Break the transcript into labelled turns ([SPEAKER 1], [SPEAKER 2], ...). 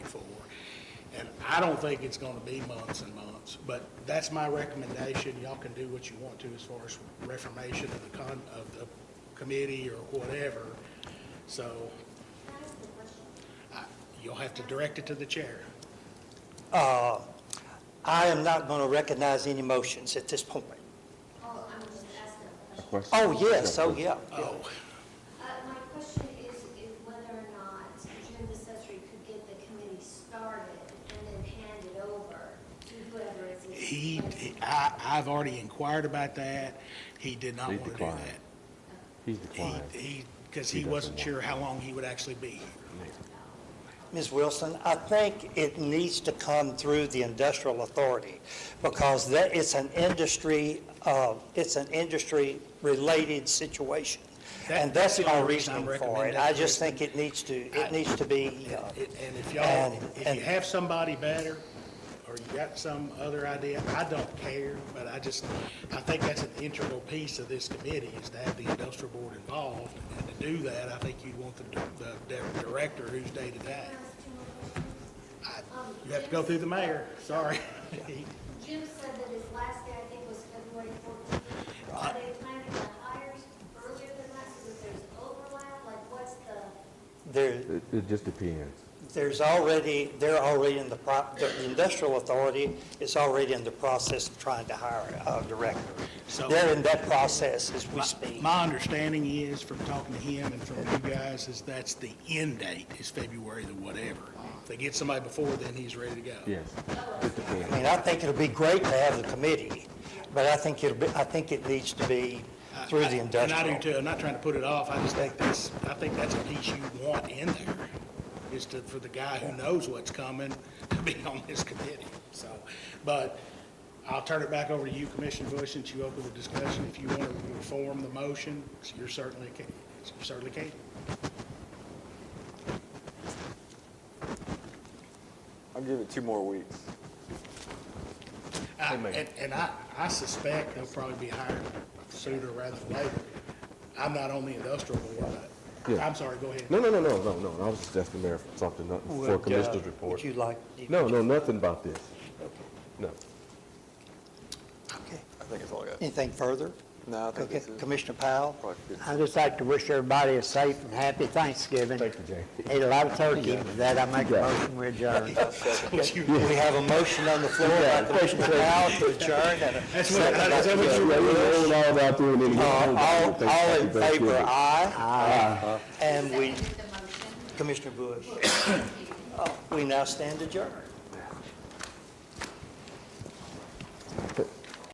[SPEAKER 1] And I don't think it's gonna be months and months, but that's my recommendation. Y'all can do what you want to as far as reformation of the con, of the committee or whatever. So, I- you'll have to direct it to the chair.
[SPEAKER 2] Uh, I am not going to recognize any motions at this point.
[SPEAKER 3] Oh, I'm just asking a question.
[SPEAKER 4] Question?
[SPEAKER 2] Oh, yes, oh, yeah.
[SPEAKER 1] Oh,
[SPEAKER 3] Uh, my question is, is whether or not Jim Accessory could get the committee started and then hand it over to whoever is. in
[SPEAKER 1] he,
[SPEAKER 3] place.
[SPEAKER 1] I, I've already inquired about that. He did not
[SPEAKER 4] He
[SPEAKER 1] wanna do
[SPEAKER 4] declined.
[SPEAKER 1] that.
[SPEAKER 4] He's
[SPEAKER 1] He,
[SPEAKER 4] declined.
[SPEAKER 1] he, because
[SPEAKER 4] He
[SPEAKER 1] he
[SPEAKER 4] doesn't
[SPEAKER 1] wasn't
[SPEAKER 4] want
[SPEAKER 1] sure how long he would actually be.
[SPEAKER 2] Ms. Wilson, I think it needs to come through the industrial authority because that, it's an industry, uh, it's an industry-related situation. And that's the only reason
[SPEAKER 1] I'm
[SPEAKER 2] for
[SPEAKER 1] recommending
[SPEAKER 2] it. I just
[SPEAKER 1] Kristen.
[SPEAKER 2] think it needs to,
[SPEAKER 1] I-
[SPEAKER 2] it needs to be, uh,
[SPEAKER 1] And and if y'all,
[SPEAKER 2] And-
[SPEAKER 1] if
[SPEAKER 2] and-
[SPEAKER 1] you have somebody better, or you got some other idea, I don't care, but I just, I think that's an integral piece of this committee, is to have the industrial board involved, and to do that, I think you want the, the the director who's day-to-day.
[SPEAKER 3] Can I ask two more questions?
[SPEAKER 1] I-
[SPEAKER 3] Um,
[SPEAKER 1] You have to go through the mayor, sorry.
[SPEAKER 3] Jim said that his last day, I think, was February fourteenth. Are they planning on hires earlier than that, so that there's overlap, like what's the?
[SPEAKER 2] there,
[SPEAKER 4] It, it just depends.
[SPEAKER 2] there's already, they're already in the, pro- the industrial authority is already in the process of trying to hire a director.
[SPEAKER 1] So-
[SPEAKER 2] They're in that process as we
[SPEAKER 1] My-
[SPEAKER 2] speak.
[SPEAKER 1] My understanding is, from talking to him and from you guys, is that's the end date, is February the whatever. If they get somebody before then, he's ready to go.
[SPEAKER 4] Yes. It
[SPEAKER 2] I
[SPEAKER 4] depends.
[SPEAKER 2] mean, I think it'll be great to have the committee, but I think it'll be, I think it needs to be through the
[SPEAKER 1] And Uh, I do
[SPEAKER 2] industrial.
[SPEAKER 1] too, I'm not trying to put it off, I just think that's, I think that's a piece you want in there, is to, for the guy who knows what's coming to be on this committee, so. But I'll turn it back over to you, Commissioner Bush, since you opened the discussion, if you want to reform the motion, you're certainly, ca- you certainly can.
[SPEAKER 5] I'll give it two more weeks.
[SPEAKER 1] I- And, and I, I suspect they'll probably be hired sooner rather than later. I'm not on the industrial board, but,
[SPEAKER 4] Yeah.
[SPEAKER 1] I'm sorry, go ahead.
[SPEAKER 4] No, no, no, no, no, no. I was just asking the mayor for something, not for a
[SPEAKER 2] Would, uh,
[SPEAKER 4] commissioner's report.
[SPEAKER 2] Would you like?
[SPEAKER 4] No, no, nothing about this. No.
[SPEAKER 2] Okay.
[SPEAKER 5] I think it's all good.
[SPEAKER 2] Anything further?
[SPEAKER 5] No, I think
[SPEAKER 2] Okay.
[SPEAKER 5] this is-
[SPEAKER 2] Commissioner Powell?
[SPEAKER 5] Probably good.
[SPEAKER 6] I'd just like to wish everybody a safe and happy Thanksgiving.
[SPEAKER 4] Thank you, Jay.
[SPEAKER 6] Ate a lot of turkey, but that I make a motion we adjourn.
[SPEAKER 1] What you-
[SPEAKER 2] We have a motion on the floor by Commissioner Powell to adjourn and a
[SPEAKER 1] That's what,
[SPEAKER 2] second by
[SPEAKER 1] that's what
[SPEAKER 4] Yeah,
[SPEAKER 1] you
[SPEAKER 4] yeah, we rolled all about through and then.
[SPEAKER 2] Uh, All, all in favor,
[SPEAKER 4] I.
[SPEAKER 2] aye? Aye. And we,
[SPEAKER 3] Seconded the motion.
[SPEAKER 2] Commissioner Bush, Uh, we Oh, now stand adjourned.